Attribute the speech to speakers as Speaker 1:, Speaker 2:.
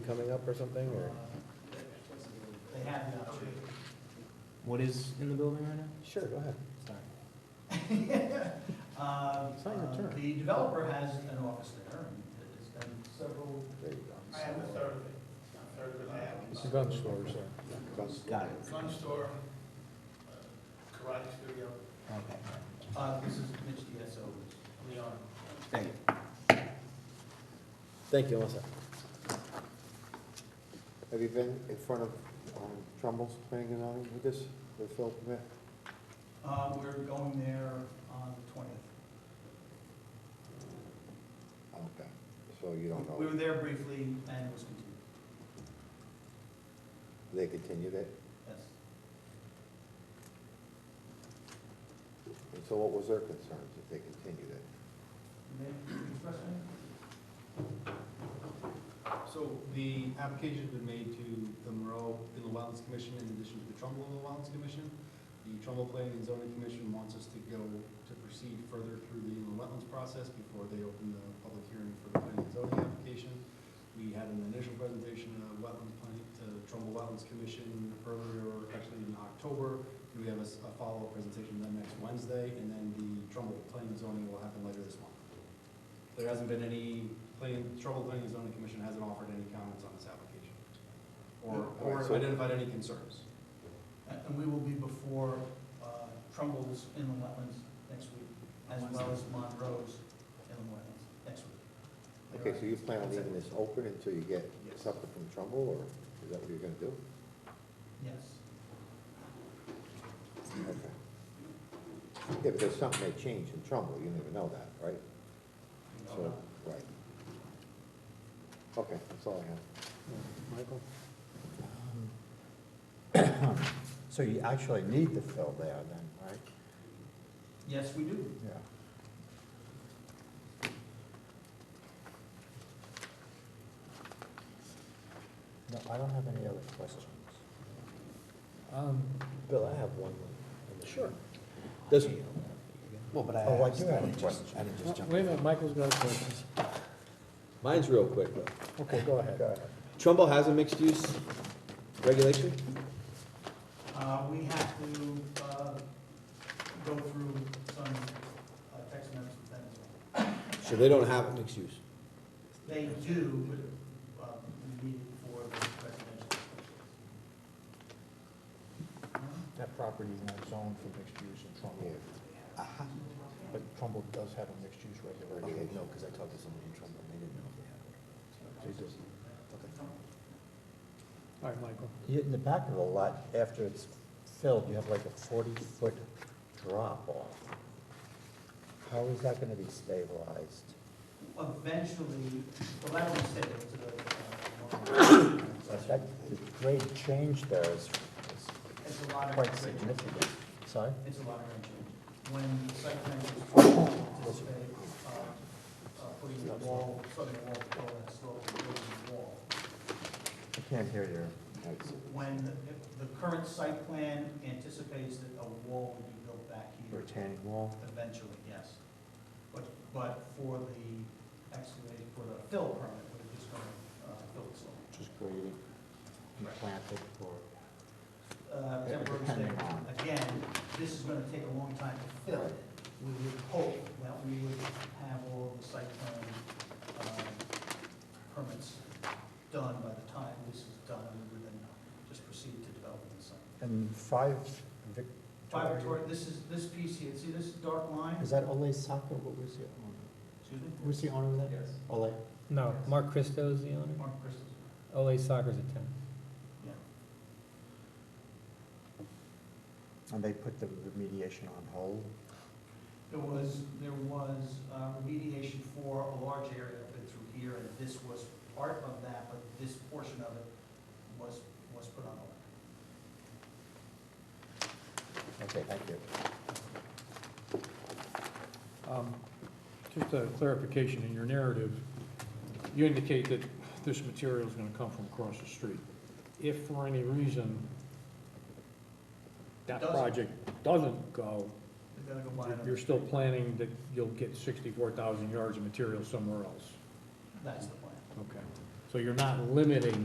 Speaker 1: coming up or something, or?
Speaker 2: They have the option. What is in the building right now?
Speaker 1: Sure, go ahead.
Speaker 2: Sorry.
Speaker 1: It's not your
Speaker 2: Um,
Speaker 1: turn.
Speaker 2: The developer has an office there, and it's been several.
Speaker 1: There you go.
Speaker 3: I have a third of it, a third of it I have.
Speaker 1: It's a gun store, so.
Speaker 2: Got it.
Speaker 3: Gun store, uh, karate studio,
Speaker 2: Okay. Uh, this is Mitch DSO,
Speaker 3: we are.
Speaker 2: Thank you.
Speaker 1: Thank you, Melissa.
Speaker 4: Have you been in front of um, Trumbull's planning and zoning with this, with Phil permit?
Speaker 2: Uh, we're going there on the twentieth.
Speaker 4: Okay, so you don't
Speaker 2: We
Speaker 4: know,
Speaker 2: were there briefly and it was continued,
Speaker 4: they continued it?
Speaker 2: yes.
Speaker 4: And so what was their concerns if they continued it?
Speaker 2: May I express any?
Speaker 5: So the application's been made to the Monroe Inland Wetlands Commission in addition to the Trumbull Inland Wetlands Commission. The Trumbull Planning and Zoning Commission wants us to go to proceed further through the inland wetlands process before they open the public hearing for the planning and zoning application. We had an initial presentation of wetlands planning to Trumbull Wetlands Commission earlier, actually in October. And we have a s- a follow-up presentation then next Wednesday, and then the Trumbull Planning and Zoning will happen later this month. There hasn't been any, planning, Trumbull Planning and Zoning Commission hasn't offered any comments on this application. Or,
Speaker 4: Alright,
Speaker 5: or
Speaker 4: so-
Speaker 5: identified any concerns.
Speaker 2: And Uh, and we will be before uh, Trumbull's inland wetlands next week, as well as Monroe's inland wetlands next week.
Speaker 4: Okay, so you plan on
Speaker 2: That's it.
Speaker 4: leaving this open until you get
Speaker 2: Yes.
Speaker 4: something from Trumbull, or is that what you're gonna do?
Speaker 2: Yes.
Speaker 4: Okay. Yeah, but there's something may change in Trumbull, you never know that, right?
Speaker 2: We don't
Speaker 4: So,
Speaker 2: know.
Speaker 4: right. Okay, that's all I have.
Speaker 1: Michael?
Speaker 6: Um, So you actually need to fill there then, right?
Speaker 2: Yes, we do.
Speaker 6: Yeah. No, I don't have any other questions.
Speaker 1: Um, Bill, I have one. Sure. Does,
Speaker 6: Well, but I
Speaker 1: Oh, I
Speaker 6: asked,
Speaker 1: do
Speaker 6: I
Speaker 1: have a
Speaker 6: didn't just, I didn't just
Speaker 1: wait a
Speaker 6: jump.
Speaker 1: minute, Michael's got questions. Mine's real quick, though.
Speaker 6: Okay, go ahead.
Speaker 1: Trumbull has a mixed-use regulation?
Speaker 2: Uh, We have to uh, go through some uh, text amendments with them as well.
Speaker 1: So they don't have mixed use.
Speaker 2: They do, but um, we need it for the residential.
Speaker 6: That property is not zoned for mixed use in Trumbull,
Speaker 4: Yeah,
Speaker 6: but Trumbull does have a mixed use regulation.
Speaker 4: okay, no, because I talked to somebody in Trumbull, they didn't know if they had
Speaker 1: All right, Michael.
Speaker 6: You- In the back of the lot, after it's filled, you have like a forty-foot drop-off. How is that gonna be stabilized?
Speaker 2: Eventually, well, that was said, it was a, uh,
Speaker 6: That, the grade change there is is
Speaker 2: it's a lot of.
Speaker 6: quite significant. Sorry?
Speaker 2: It's a lot of range change. When the site plan was anticipated, uh, uh, putting the wall, southern wall, all that slope, building the wall.
Speaker 6: I can't hear you.
Speaker 2: When the- the current site plan anticipates that a wall would be built back here
Speaker 6: Retaining wall?
Speaker 2: eventually, yes. But, but for the excavating, for the fill permit, we're just going to uh, fill the slope.
Speaker 6: Just grading, and planted or?
Speaker 2: uh, temporary
Speaker 6: Depending
Speaker 2: state.
Speaker 6: on-
Speaker 2: Again, this is gonna take a long time to fill. We would hope that we would have all of the site plan, um, permits done by the time this is done, we would then just proceed to developing the site.
Speaker 6: And five Vic.
Speaker 2: Five Victoria, this is, this piece here, see this dark line?
Speaker 6: Is that Ole Saka? What was the owner?
Speaker 2: Excuse me?
Speaker 6: Who's the owner of that?
Speaker 5: Yes.
Speaker 6: Ole?
Speaker 7: No, Mark Christo is the owner.
Speaker 2: Mark Christmas,
Speaker 7: Ole Soccer's a tenant.
Speaker 2: yeah.
Speaker 6: And they put the remediation on hold?
Speaker 2: There was, there was uh, remediation for a large area of it through here, and this was part of that, but this portion of it was, was put on hold.
Speaker 6: Okay, thank you.
Speaker 8: Um, Just a clarification in your narrative, you indicate that this material is going to come from across the street. If for any reason that
Speaker 2: Doesn't.
Speaker 8: project doesn't go,
Speaker 2: They gotta go buy
Speaker 8: you're-
Speaker 2: another.
Speaker 8: you're still planning that you'll get 64,000 yards of material somewhere else.
Speaker 2: That's the plan.
Speaker 8: Okay. So you're not limiting